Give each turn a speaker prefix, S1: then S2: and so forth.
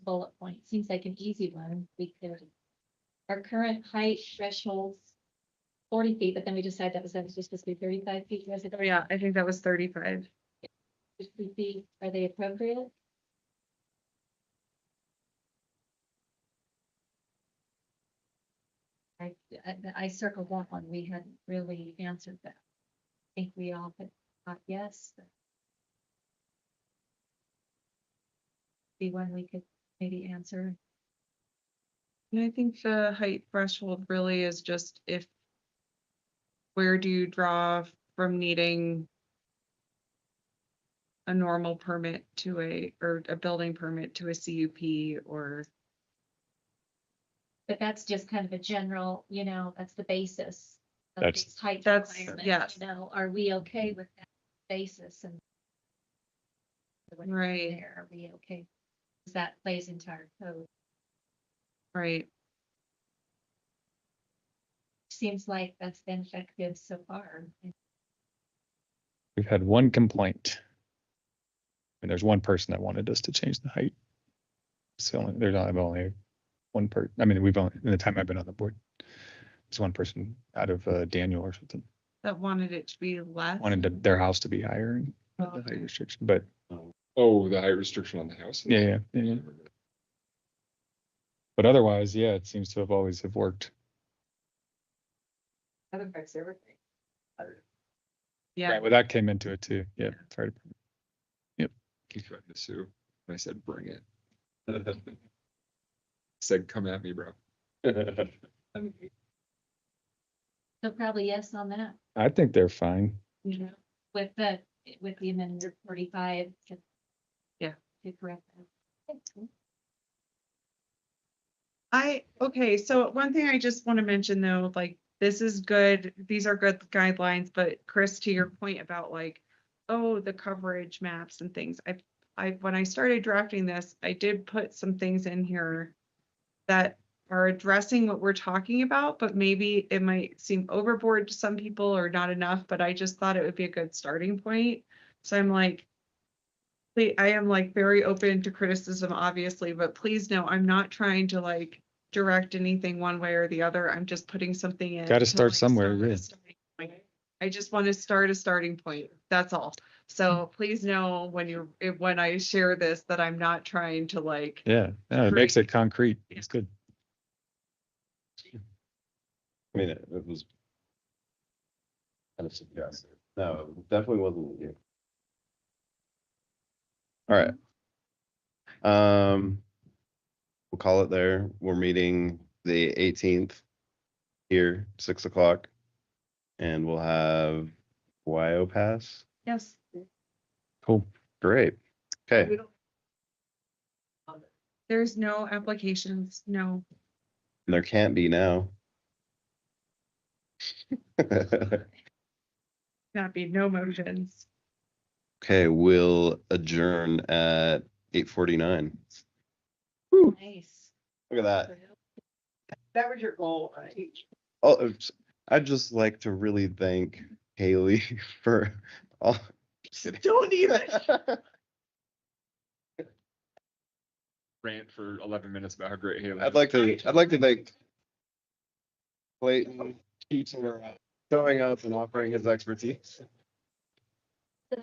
S1: bullet point, seems like an easy one, we could. Our current height thresholds forty feet, but then we decided that was, that was just supposed to be thirty-five feet, was it?
S2: Oh, yeah, I think that was thirty-five.
S1: 50 feet? are they appropriate? I, I- I circled that one, we hadn't really answered that. I think we all had, thought yes. but- Be one we could maybe answer.
S2: And I think the height threshold really is just if. Where do you draw from needing? A normal permit to a, or a building permit to a CUP or,
S1: But that's just kind of a general, you know, that's the basis. of
S3: That's-
S1: these Height.
S2: That's-
S1: requirements,
S2: yes.
S1: You know, are we okay with that basis and? what is
S2: Right.
S1: there? Are we okay? 'Cause That plays into our code.
S2: right?
S1: Seems like that's been effective so far.
S3: We've had one complaint. And there's one person that wanted us to change the height. So only- there's not only one per, I mean, we've only, in the time I've been on the board. There's one person out of uh, Daniel or something,
S2: That wanted it to be less.
S3: wanted to- their house to be higher and the height
S2: Okay.
S3: restriction, but
S4: Oh, the height restriction on the house?
S3: yeah, yeah, yeah, yeah. But otherwise, yeah, it seems to have always have worked.
S1: That affects everything.
S2: Yeah,
S3: Right, well, that came into it too. Yeah, fire department.
S4: Keep trying to sue. And I said, bring it. Said, come at me, bro.
S1: So probably yes on that,
S3: I think they're fine.
S1: you know, with the, with the amendment forty-five. to-
S2: Yeah.
S1: To correct that. Okay.
S2: I, okay, so one thing I just want to mention though, like, this is good, these are good guidelines, but Chris, to your point about like, oh, the coverage maps and things, I, I, when I started drafting this, I did put some things in here that are addressing what we're talking about, but maybe it might seem overboard to some people or not enough, but I just thought it would be a good starting point. So I'm like, ple- I am like very open to criticism, obviously, but please know, I'm not trying to like direct anything one way or the other. I'm just putting something in.
S3: Gotta
S2: to,
S3: start
S2: like,
S3: somewhere,
S2: start a
S3: yeah.
S2: starting point. I just want to start a starting point. That's all. So please know when you're, if- when I share this, that I'm not trying to like
S3: Yeah, no, it makes it concrete. It's good.
S5: I mean, it it was. Kind of suggested, no, it definitely wasn't you. All right. Um. We'll call it there, we're meeting the eighteenth here, six o'clock. And we'll have YO pass,
S2: Yes.
S3: Cool.
S5: great, okay,
S2: There's no applications, no.
S5: and there can't be now.
S2: Not be no motions.
S5: Okay, we'll adjourn at eight forty-nine,
S1: Nice.
S5: look at that.
S6: That was your goal, right?
S5: Oh, it's- I'd just like to really thank Haley for all.
S6: Don't even.
S4: Rant for eleven minutes about how great Haley.
S5: I'd
S4: is.
S5: like to, I'd like to thank uh, Clayton Keaton for showing up and offering his expertise.